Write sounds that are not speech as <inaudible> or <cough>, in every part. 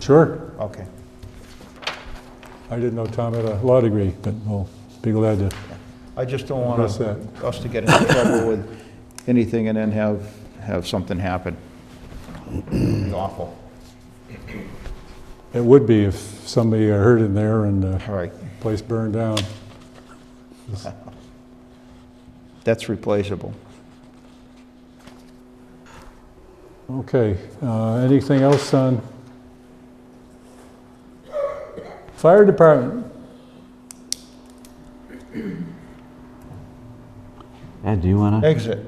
Sure. Okay. I didn't know Tom had a law degree, but we'll be glad to. I just don't want That's it. us to get into trouble with anything and then have, have something happen. It'd be awful. It would be if somebody got hurt in there and the All right, place burned down. that's replaceable. Okay, uh, anything else on? Fire department, Ed, do you want to? Exit.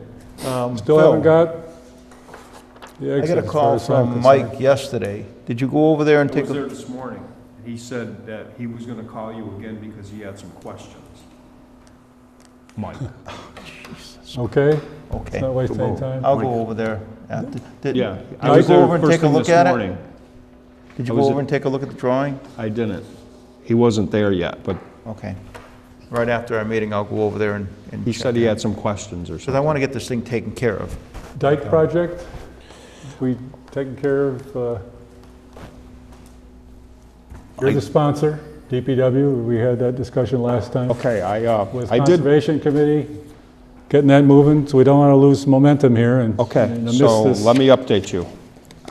Um, still Phil, haven't got? the I exit got a as far call as I'm from concerned. Mike yesterday. Did you go over there and I take was there a? this morning. He said that he was gonna call you again because he had some questions. Mike. Okay, Okay, it's not wasting any time. I'll go over there. after. Did Yeah. I did you was there go over and first take a thing look this at it? morning. Did I you go was over at- and take a look at the drawing? I didn't. He wasn't there yet, but Okay. Right after our meeting, I'll go over there and. and he check said he it out. had some questions or Because I something. want to get this thing taken care of. Dike project, we taking care of, uh, you're the sponsor, DPW, we had that discussion last time. Okay, I, uh, With I did, Conservation Committee, getting that moving, so we don't want to lose momentum here and. okay, and miss so this. let me update you.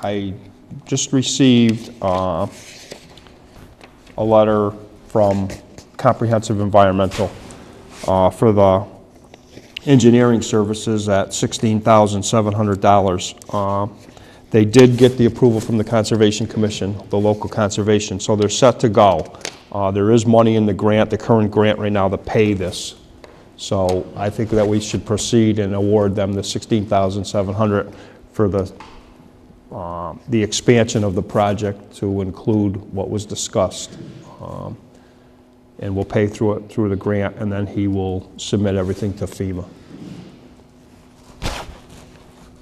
I just received uh, a letter from Comprehensive Environmental uh, for the engineering services at $16,700. Uh, They did get the approval from the Conservation Commission, the local conservation, so they're set to go. Uh, There is money in the grant, the current grant right now to pay this. So I think that we should proceed and award them the $16,700 for the, um, the expansion of the project to include what was discussed. Um, And we'll pay through it, through the grant, and then he will submit everything to FEMA.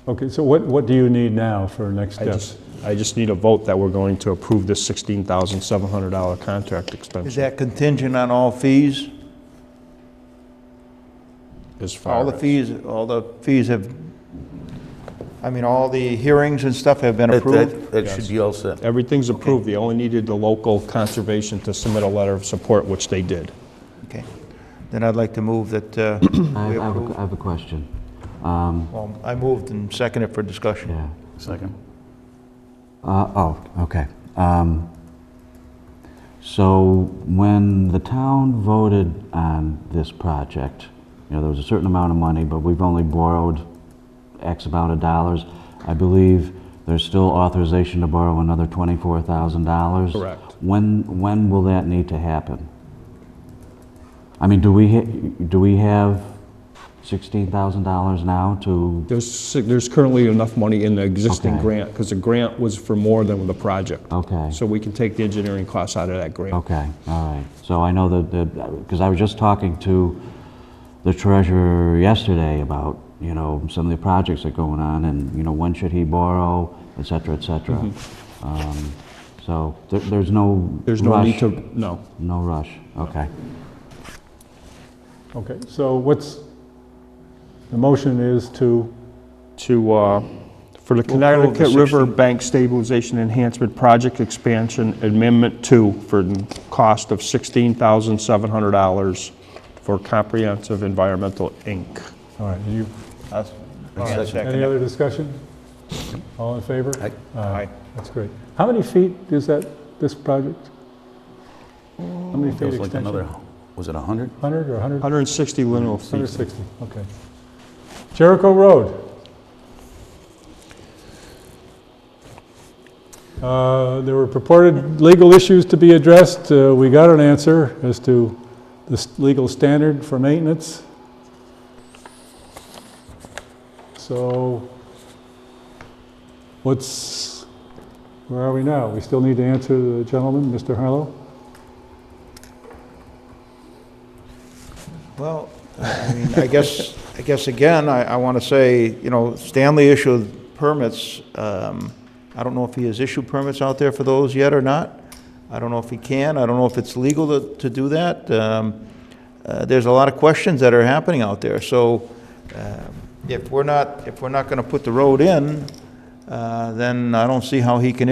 Okay, so what, what do you need now for next I steps? just, I just need a vote that we're going to approve this $16,700 contract Is extension. that contingent on all fees? as All far the as- fees, all the fees have, I mean, all the hearings and stuff have been That- approved? That that should be all set. Everything's approved, they only needed the local conservation to submit a letter of support, which they did. Okay. Then I'd like to move that uh, I we I have a- approve. I have a question. Um, Well, I moved and seconded for discussion. Yeah. Second. Oh, okay. Um, So when the town voted on this project, you know, there was a certain amount of money, but we've only borrowed X amount of dollars. I believe there's still authorization to borrow another $24,000. Correct. When, when will that need to happen? I mean, do we, ha- do we have $16,000 now to There's, si- there's currently enough money in the existing Okay. grant, because the grant was for more than the project. Okay. So we can take the engineering costs out of that grant. Okay, all right. So I know that- that, because I was just talking to the treasurer yesterday about, you know, some of the projects that are going on and, you know, when should he borrow, et cetera, et cetera. Um, So there- there's no Mm-hmm. There's no need rush- to, no. No rush, okay. Okay, so what's, the motion is to, To, uh, for the Connecticut River Bank Stabilization Enhancement Project Expansion Amendment Two for the cost of sixteen thousand seven hundred dollars for Comprehensive Environmental, Inc. all right, you, I'll- I'll Second. second any it. other discussion? All in favor? Aye. Aye. That's great. How many feet is that, this project? How many That feet was like another, extension? was it 100? 100 or 100? Hundred and sixty lineal feet. 160, okay. Jericho Road. Uh, There were purported legal issues to be addressed. Uh, We got an answer as to the s- legal standard for maintenance. So what's, where are we now? We still need to answer the gentleman, Mr. Harlow? Well, I mean, <laughs> I guess, I guess again, I, I want to say, you know, Stanley issued permits. Um, I don't know if he has issued permits out there for those yet or not. I don't know if he can. I don't know if it's legal to, to do that. Um, uh, there's a lot of questions that are happening out there. So, um, if we're not, if we're not going to put the road in, uh, then I don't see how he can